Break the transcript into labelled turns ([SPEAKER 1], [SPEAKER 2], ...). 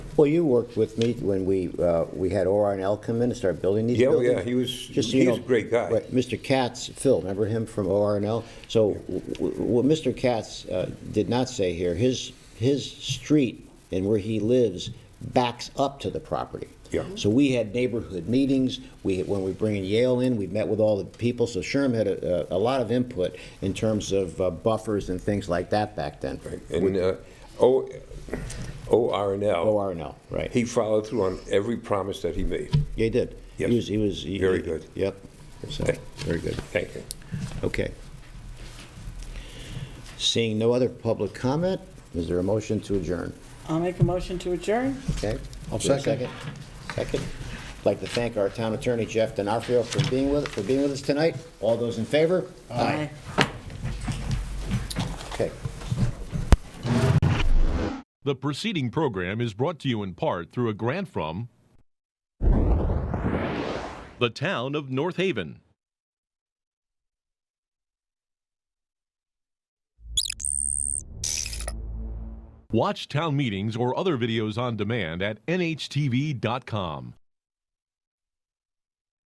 [SPEAKER 1] Well, you worked with me when we, uh, we had ORNL come in and start building these
[SPEAKER 2] Yeah, oh,
[SPEAKER 1] buildings.
[SPEAKER 2] yeah, he was-
[SPEAKER 1] Just so you
[SPEAKER 2] he's
[SPEAKER 1] know-
[SPEAKER 2] a great guy.
[SPEAKER 1] Right, Mr. Katz, Phil, remember him from ORNL? So w- w- what Mr. Katz uh, did not say here, his, his street and where he lives backs up to the property.
[SPEAKER 2] Yeah.
[SPEAKER 1] So we had neighborhood meetings, we, when we bring in Yale in, we met with all the people, so Sherm had a, a a lot of input in terms of uh, buffers and things like that back then.
[SPEAKER 2] And uh, O- ORNL,
[SPEAKER 1] ORNL, right.
[SPEAKER 2] he followed through on every promise that he made.
[SPEAKER 1] Yeah, he did.
[SPEAKER 2] Yes.
[SPEAKER 1] He was, he was. he-
[SPEAKER 2] Very
[SPEAKER 1] he-
[SPEAKER 2] good.
[SPEAKER 1] Yep. So,
[SPEAKER 2] Okay.
[SPEAKER 1] Very good.
[SPEAKER 2] Thank you.
[SPEAKER 1] Okay. Seeing no other public comment, is there a motion to adjourn?
[SPEAKER 3] I'll make a motion to adjourn.
[SPEAKER 1] Okay?
[SPEAKER 4] I'll
[SPEAKER 1] Is there a
[SPEAKER 4] second.
[SPEAKER 1] Second. I'd like to thank our town attorney, Jeff D'Onofrio, for being with, for being with us tonight. All those in favor?
[SPEAKER 3] Aye.
[SPEAKER 1] Okay.
[SPEAKER 5] The preceding program is brought to you in part through a grant from the town of North Haven. Watch town meetings or other videos on demand at nhtv.com.